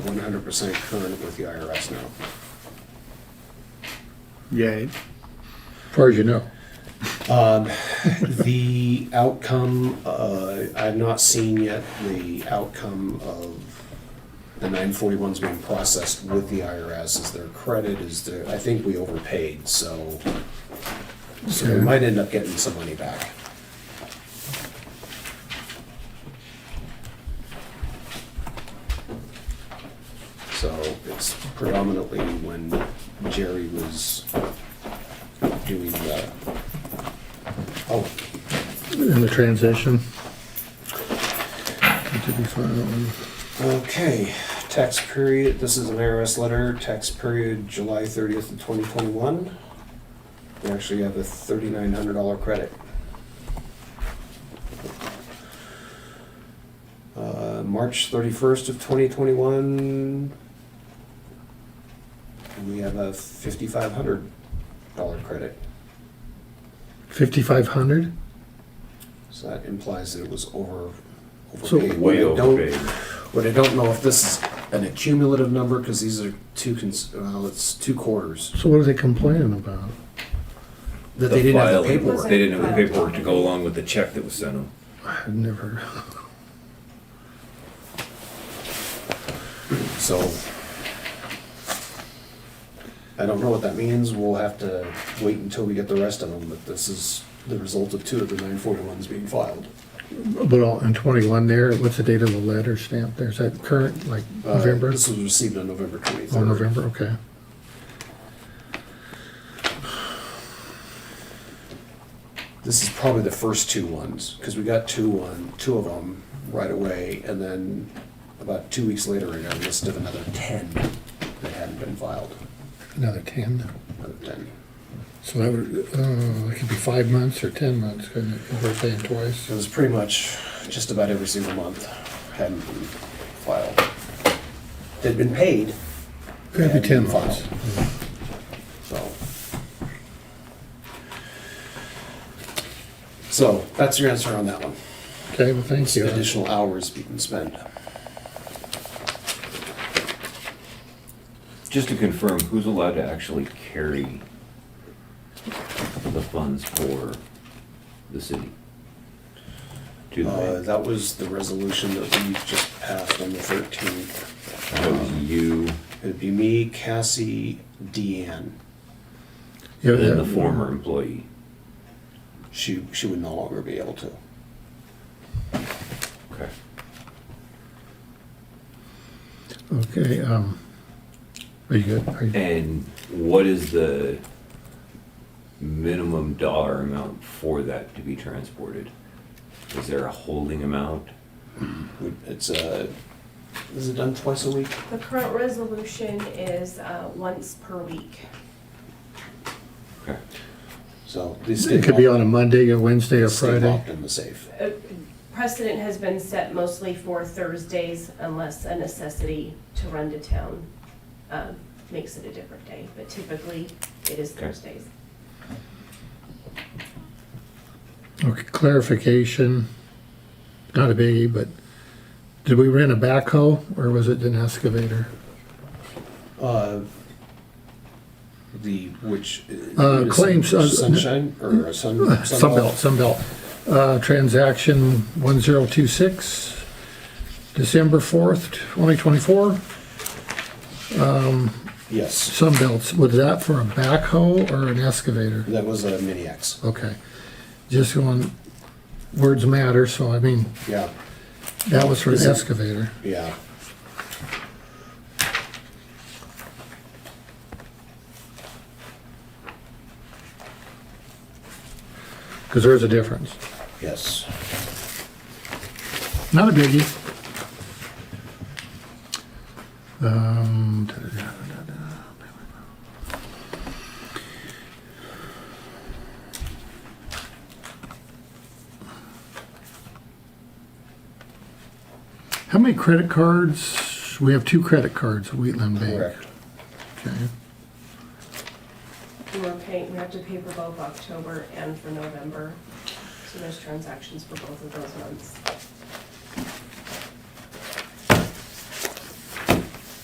one hundred percent current with the IRS now. Yay. as far as you know. The outcome, uh, I've not seen yet the outcome of the nine forty-ones being processed with the IRS is their credit is their, I think we overpaid, so. So we might end up getting some money back. So it's predominantly when Jerry was doing the, oh, In the transition. Did we find that one? Okay, tax period, this is an IRS letter, tax period July thirtieth of twenty twenty-one. We actually have a thirty-nine hundred dollar credit. Uh, March thirty-first of twenty twenty-one. We have a fifty-five hundred dollar credit, 5,500? so that implies that it was over. So overpaid. Way I don't- overpaid. But I don't know if this is an accumulative number, because these are two, cons- well, it's two quarters, So what are they complaining about? that The they didn't have the filing. paperwork. They didn't have the paperwork to go along with the check that was sent them. I've never, So I don't know what that means. We'll have to wait until we get the rest of them, but this is the result of two of the nine forty-ones being filed. but all, in 21 there, what's the date of the letter stamp there? Is that current, like Uh, November? This was received on November twenty-third. Oh, November, okay. This is probably the first two ones, because we got two on, two of them right away, and then about two weeks later, I got a list of another ten that hadn't been filed, Another 10. another ten. So that would, oh, it could be five months or 10 months, couldn't it? If we're paying twice. It was pretty much just about every single month hadn't been filed. They'd been paid, Could be 10 Yeah. months. so. So that's your answer on that one. Okay, well, thank you. Additional hours we can spend. Just to confirm, who's allowed to actually carry the funds for the city? To the Uh, bank? that was the resolution that we just passed on the thirteenth. That was you It'd be me, Cassie, Deanne. Yeah, and yeah. the former employee. She, she would no longer be able to. Okay. Okay, um, are you good? Are you- And what is the minimum dollar amount for that to be transported? Is there a holding amount? We- It's a, is it done twice a week? The current resolution is uh, once per week. Okay. So these It could be on a Monday, a Wednesday, or Stay Friday. locked in the safe. Uh, Precedent has been set mostly for Thursdays unless a necessity to run to town um, makes it a different day, but typically it is Okay. Thursdays. Okay, clarification, not a biggie, but did we rent a backhoe or was it an excavator? Uh, The, which. Uh, claims, uh, Sunshine or a sun. Sunbelt, Sunbelt. Uh, transaction one zero two six, December fourth, twenty twenty-four. Yes, Sunbelts, was that for a backhoe or an excavator? that was a mini X. Okay, just going, words matter, so I mean, Yeah, that was for an Is it- excavator. yeah. Because there's a difference. Yes. Not a biggie. Um, da, da, da, da, da. How many credit cards? We have two credit cards at Wheatland Bank. Correct. Okay. We We're paying, we have to pay for both October and for November, so there's transactions for both of those months.